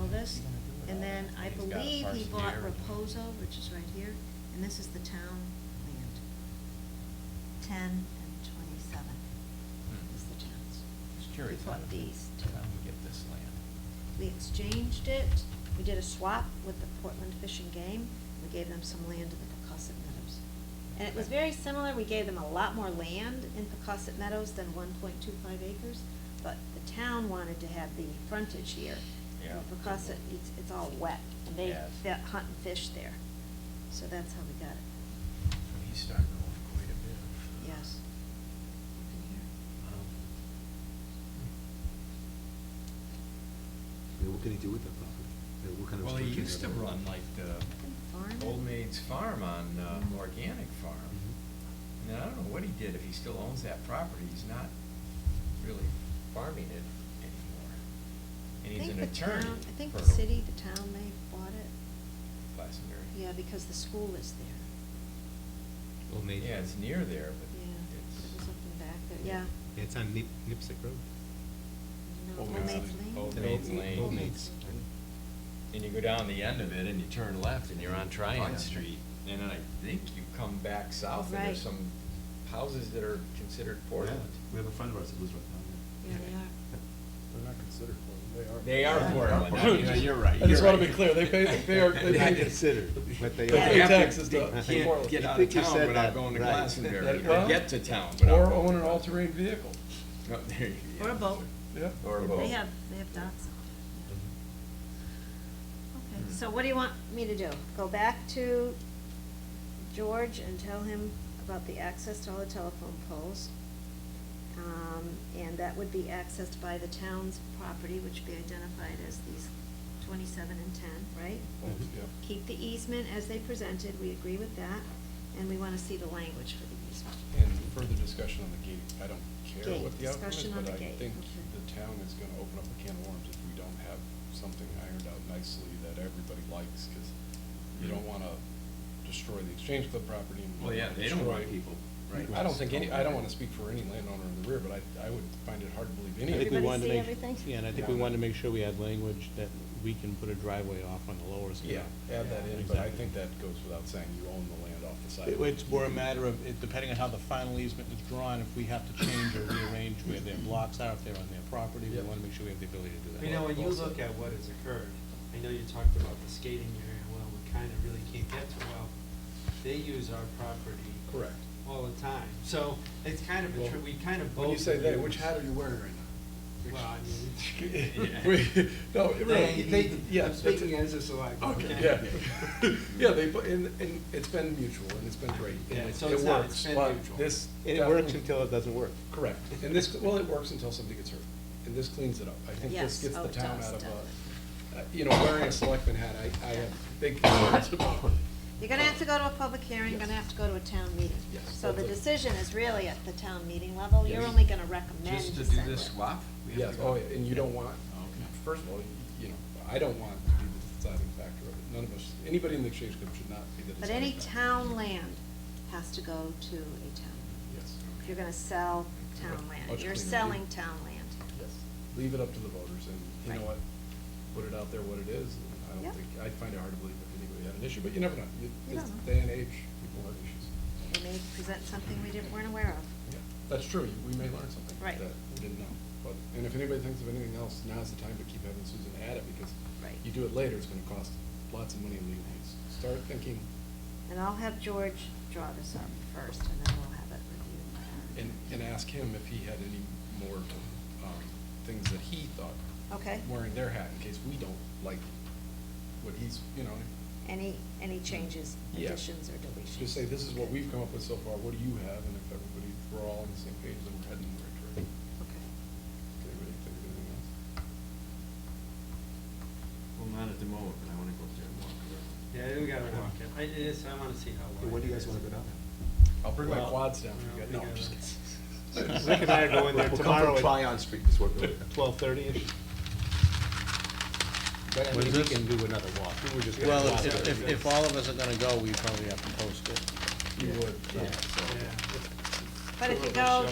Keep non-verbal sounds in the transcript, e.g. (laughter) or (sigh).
Oh, office, and then I He's got believe he parts in bought there. Reposo, which is right here, and this is the town land. Ten and twenty-seven Hmm. is the towns. Just curious. We how bought did the these two. town get this land? We exchanged it, we did a swap with the Portland Fish and Game, we gave them some land in the Pecosset Meadows. And it was Okay. very similar, we gave them a lot more land in Pecosset Meadows than one point two five acres, but the town wanted to have the frontage here. Yeah. And Pecosset, it's, it's all wet, and they Yes. fit- hunt and fish there, so that's how we got it, So he's starting off quite a bit of. uh, um, yes. Up in here. Yeah, what can he do with that property? Yeah, what kind um, of Well, he structure used is to that? run like the Farm it. Old Maid's Farm on uh, Mhm. Organic Farm. Mhm. And I don't know what he did, if he still owns that property, he's not really farming it anymore. And he's an I think the attorney. town- I think the for city, the town, they bought it, Glastonbury. yeah, because the school is there, Mm-hmm. Old Maid. Yeah, it's near there, but yeah, it's. it was up in back there, yeah. Yeah, It's on Nip, Nipsick Road. No, Old Old Maid's- Maid's Lane? Old Maid's Lane. Old Maids. And you go down the end of it and you turn left and you're on Oh, yeah. Tryon Street. And then I think you come back south and Right. there's some houses that are considered Portland. We have a friend of ours that lives right down Yeah, they are. They're not considered Portland, they They are. are Yeah. Portland. (laughs) (laughs) I mean, You're right. I just you're want to right. be clear, they pay, they are, (laughs) (laughs) they They're pay. not (laughs) considered, but they They are. pay Yeah. taxes to You Hey, can't Portland. get I out of think you town said without that, going to right. Glastonbury, or Well, get to town without. Or going own to an Glastonbury. all-terrain (laughs) vehicle, Oh, there you go. Or a boat. yeah. Or a boat. They have, they have docks up there. Okay, so what do you want me to do? Go back to George and tell him about the access to all the telephone poles. Um, and that would be accessed by the town's property, which would be identified as these twenty-seven and ten, right? Yeah. Keep the easement as they presented, we agree with that, and we wanna see the language for the easement. And further discussion on the gate, I don't care Gate, what the outcome is, discussion on the but I gate, think okay. the town is gonna open up a can of worms if we don't have something ironed out nicely that everybody likes, because you don't wanna destroy the exchange club property and. Well, yeah, they don't want destroy- people, right? I don't think any, I don't wanna speak for any landowner in the rear, but I, I would find it hard to believe any. I think we Everybody wanted to see make- everything? Yeah, and I think we wanted to make sure we had language that we can put a driveway off on the lower Yeah, scale. add that in, but I Exactly. think that goes without saying, you own the land off the side. It- It's more a matter of, it- depending on how the final easement is drawn, if we have to change or rearrange where their blocks are, if they're on their property, we Yep. want to make sure we have the ability to do that. You know, when you look at what has occurred, I know you talked about the skating area, well, we kind of really can't get to, well, they use our property. Correct. All the time, so it's kind of a, tr- Well, we kind of both. When you say they, use- which hat are you wearing right Well, I (laughs) mean. (laughs) now? (laughs) Yeah. We- No, Oh, it really. They, they, yeah, I'm that's speaking it. as a select. Okay, yeah. (laughs) Yeah, they, put- and, and it's been mutual, and it's been great, Yeah, and it so it it's not- works, it's been but mutual. this. And it works definitely- until it doesn't work. Correct, and this, well, it works until somebody gets hurt, and this cleans it up. I think Yes. this gets Oh, the it town does, out of a, definitely. uh, you know, wearing a selectman hat, I, I have big concerns about (laughs) it. You're gonna have to go to a public hearing, you're gonna have to go to a town meeting. Yes. So the decision is really at the town meeting level, you're Yes. only gonna recommend Just to to do send it. this swap? we have Yes, to go- oh, yeah, and you don't want, Okay. first of all, you know, I don't want to be the deciding factor of it. None of us, anybody in the exchange group should not be the But deciding any factor. town land has to go to a town. Yes, If you're gonna sell town land, Much you're cleaner. selling town land. yes. Leave it up to the voters and, you know Right. what, put it out there what it is. and I Yeah. don't think, I find it hard to believe if anybody had an issue, but you never know. You- You This don't know. day and age, people have issues. They may present something we didn't, weren't aware of. Yeah, That's true, You- we may learn something Right. that we didn't know. But, and if anybody thinks of anything else, now's the time to keep having Susan add it because Right. you do it later, it's gonna cost lots of money in legal fees. Start thinking And I'll have George draw this up first, and then we'll have it reviewed. And, and ask him if he had any more, um, things that he thought. Okay. Wearing their hat in case we don't like what he's, you know, Any, any changes, Yeah. additions, or deletions? just say, this is what Okay. we've come up with so far, what do you have? And if everybody, we're all on the same page, then we're heading in the right direction. Okay. Did everybody think of anything else? Well, not at the moment, but I want to go up there and walk around. Yeah, we gotta walk it, I, it is, I wanna see how wide. When do you it guys is. wanna go down there? I'll bring my Well, quads down well, for you guys. we No, I'm just gotta- kidding. (laughs) Rick and I are going there We'll come tomorrow from at- Tryon Street is what we're. Twelve-thirty-ish? But I mean, we can do another walk. We were just. gonna Well, walk if, there. if, if all of us are gonna go, we probably have to post it. You would, Yeah. yeah, so. But if Sure, you we'll go